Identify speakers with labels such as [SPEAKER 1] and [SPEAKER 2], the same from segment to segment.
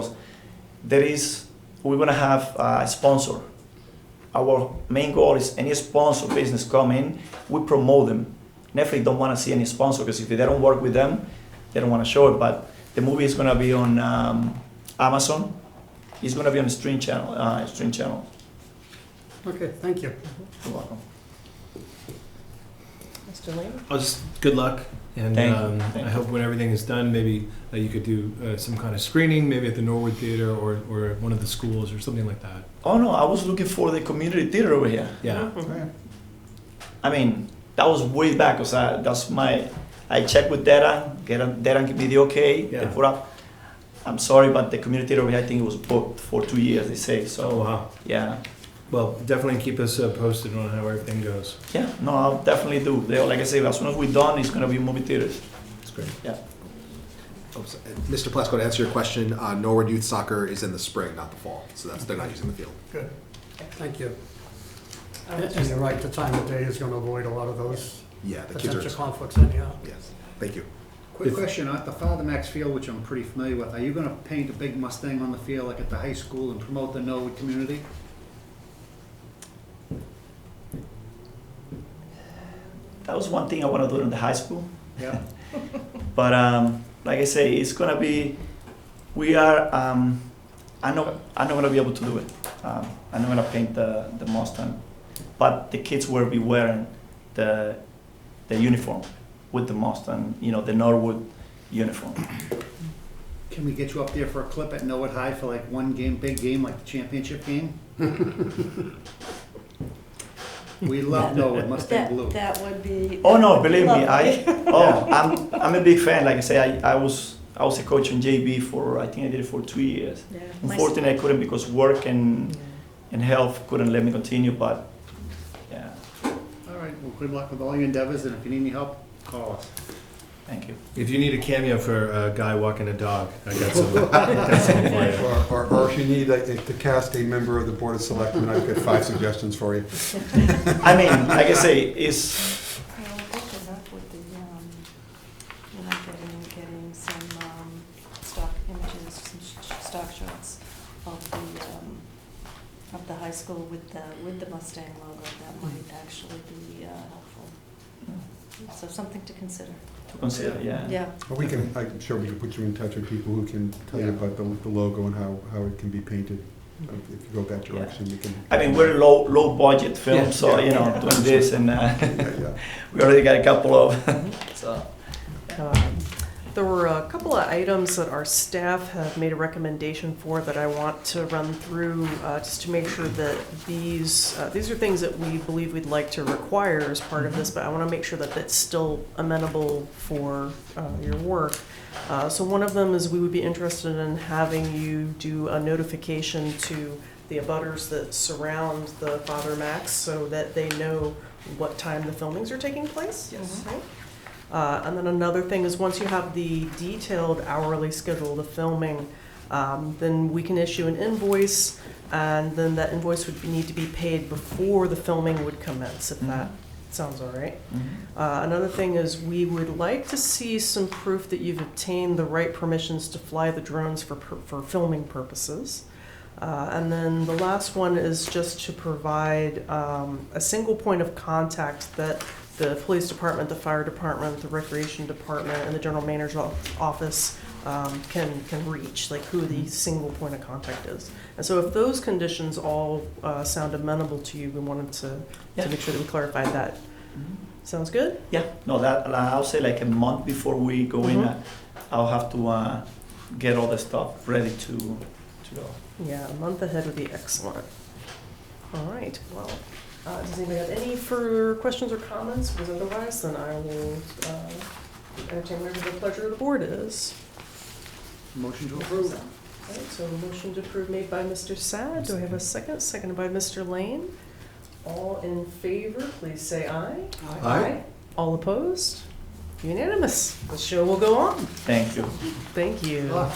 [SPEAKER 1] because there is we're gonna have a sponsor. Our main goal is any sponsor business come in, we promote them. Netflix don't want to see any sponsor because if they don't work with them, they don't want to show it. But the movie is gonna be on um, Amazon. It's gonna be on stream channel. Uh, stream channel.
[SPEAKER 2] Okay, thank you.
[SPEAKER 1] You're welcome.
[SPEAKER 3] Mr. Lane?
[SPEAKER 4] Well, just good luck, and
[SPEAKER 1] Thank you.
[SPEAKER 4] um,
[SPEAKER 1] Thank you.
[SPEAKER 4] I hope when everything is done, maybe uh, you could do uh, some kind of screening, maybe at the Norwood Theater or, or at one of the schools or something like that.
[SPEAKER 1] Oh no, I was looking for the community theater over here.
[SPEAKER 4] Yeah,
[SPEAKER 1] I mean, that was way back because that's my. I checked with Deran, Deran, Deran gave me the okay. They
[SPEAKER 4] Yeah.
[SPEAKER 1] put up. I'm sorry, but the community theater, over here, I think it was booked for two years. They say
[SPEAKER 4] so
[SPEAKER 1] so.
[SPEAKER 4] wow.
[SPEAKER 1] Yeah,
[SPEAKER 4] Well, definitely keep us uh, posted on how everything goes.
[SPEAKER 1] yeah. No, I'll definitely do. They, like I say, as soon as we're done, it's gonna be movie theaters.
[SPEAKER 4] It's great.
[SPEAKER 5] Oh, so- Mr. Plasko, to answer your question, uh, Norwood Youth Soccer is in the spring, not the fall, so that's, they're not using the field.
[SPEAKER 2] Good. Thank you. And and you're right, the time of day is going to avoid a lot of those
[SPEAKER 5] Yeah, the kids are,
[SPEAKER 2] potential conflicts anyhow.
[SPEAKER 5] yes, thank you.
[SPEAKER 6] Quick
[SPEAKER 4] If-
[SPEAKER 6] question, at the Father Max Field, which I'm pretty familiar with, are you gonna paint a big Mustang on the field like at the high school and promote the Norwood community?
[SPEAKER 1] That was one thing I want to do in the high school.
[SPEAKER 6] Yeah,
[SPEAKER 1] But um, like I say, it's gonna be. We are. Um, I'm not. I'm not gonna be able to do it. Um, I'm not gonna paint the the Mustang, but the kids will be wearing the the uniform with the Mustang. You know the Norwood uniform.
[SPEAKER 6] can we get you up there for a clip at Norwood High for like one game, big game, like the championship game? We love Norwood Mustang
[SPEAKER 3] That,
[SPEAKER 6] Blue.
[SPEAKER 3] that would be.
[SPEAKER 1] Oh no, believe me, I oh I'm I'm a big fan. Like I say, I, I was I was a coach in JB for I think I did it for two years.
[SPEAKER 3] Yeah, my s-
[SPEAKER 1] Unfortunately, I couldn't because work and and health couldn't let me continue. But yeah,
[SPEAKER 6] All right, well, good luck with all your endeavors, and if you need any help, call us.
[SPEAKER 1] thank you.
[SPEAKER 4] If you need a cameo for a guy walking a dog, I got some. got some for you.
[SPEAKER 7] Or, or- or if you need like, to cast a member of the Board of Selectmen, I've got five suggestions for you.
[SPEAKER 1] I mean, like I say, it's
[SPEAKER 3] Well, what is up with the, um, we're not getting, getting some, um, stock images, some sh- sh- stock shots of the, um, of the high school with the, with the Mustang logo, that might actually be, uh, helpful. So something to consider,
[SPEAKER 1] to consider, Hmm. yeah.
[SPEAKER 3] yeah.
[SPEAKER 7] But we can, I'm sure we can put you in touch with people who can tell you
[SPEAKER 6] Yeah.
[SPEAKER 7] about the, the logo and how, how it can be painted. If if you go that
[SPEAKER 1] Yeah.
[SPEAKER 7] direction, we can.
[SPEAKER 1] I mean, we're a low, low budget film,
[SPEAKER 7] Yeah,
[SPEAKER 1] so,
[SPEAKER 7] yeah.
[SPEAKER 1] you know, doing this and, uh,
[SPEAKER 7] Yeah, yeah.
[SPEAKER 1] we already got a couple of, so.
[SPEAKER 8] Um, There were a couple of items that our staff have made a recommendation for that I want to run through, uh, just to make sure that these, uh, these are things that we believe we'd like to require as part of this, but I want to make sure that that's still amenable for uh, your work. Uh, So one of them is we would be interested in having you do a notification to the abutters that surround the Father Max so that they know what time the filmings are taking place.
[SPEAKER 3] Yes.
[SPEAKER 8] Right? Uh, and then another thing is once you have the detailed hourly schedule of filming, um, then we can issue an invoice, and then that invoice would need to be paid before the filming would commence, if that sounds all right.
[SPEAKER 7] Mm-hmm.
[SPEAKER 8] Uh, Another thing is, we would like to see some proof that you've obtained the right permissions to fly the drones for, per- for filming purposes. Uh, And then the last one is just to provide um, a single point of contact that the police department, the fire department, the recreation department, and the general manager's o- office um, can, can reach, like who the single point of contact is. And so if those conditions all uh, sound amenable to you, we wanted to,
[SPEAKER 1] Yeah.
[SPEAKER 8] to make sure that we clarified that.
[SPEAKER 7] Mm-hmm.
[SPEAKER 8] Sounds good?
[SPEAKER 1] Yeah, no, that, uh, I'll say like a month before we go in,
[SPEAKER 8] Mhm.
[SPEAKER 1] uh, I'll have to, uh, get all the stuff ready to, to go.
[SPEAKER 8] Yeah, a month ahead would be excellent. All right, well, uh, does anybody have any further questions or comments? Because otherwise, then I will uh, entertain whatever the pleasure of the board is.
[SPEAKER 6] Motion to approve.
[SPEAKER 8] All right, so a motion to approve made by Mr. Sad. Do I have a second? Seconded by Mr. Lane. All in favor, please say aye. All opposed? Unanimous. The show will go on.
[SPEAKER 1] Thank you,
[SPEAKER 8] Thank you.
[SPEAKER 6] Good luck.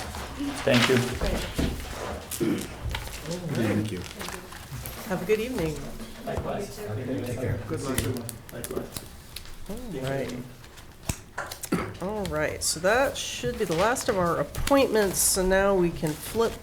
[SPEAKER 1] thank you.
[SPEAKER 5] Thank you.
[SPEAKER 8] Have a good evening.
[SPEAKER 1] Likewise.
[SPEAKER 5] Take care.
[SPEAKER 1] Good luck. Likewise.
[SPEAKER 8] All right. All right, so that should be the last of our appointments, so now we can flip